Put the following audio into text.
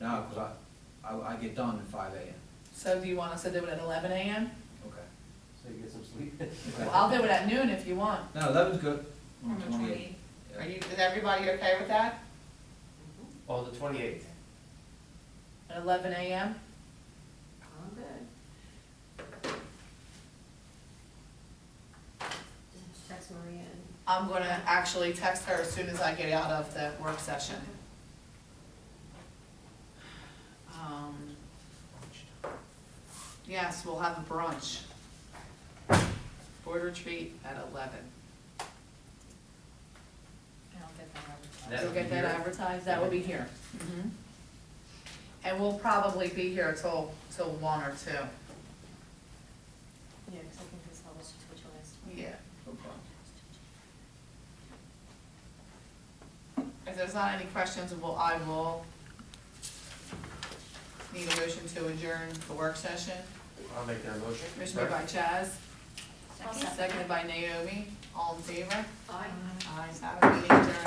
No, because I, I, I get done at five AM. So do you want us to do it at eleven AM? Okay. So you get some sleep. Well, I'll do it at noon if you want. No, eleven's good. On the 28th. Yeah. Are you, is everybody okay with that? On Oh, the twenty-eighth. At eleven AM? I'm good. Just text Maria and. I'm gonna actually text her as soon as I get out of the work session. Um, Yes, we'll have a brunch. Board retreat at eleven. I'll get that That You'll would be get that here? advertised, that will be here. Mhm. And we'll probably be here till, till one or two. Yeah, because I think this all was what you last time. Yeah. If there's not any questions, well, I will need a motion to adjourn the work session. I'll make that motion. Motion made by Chaz, seconded by Naomi, all in favor? Aye. Ayes have it, meeting adjourned.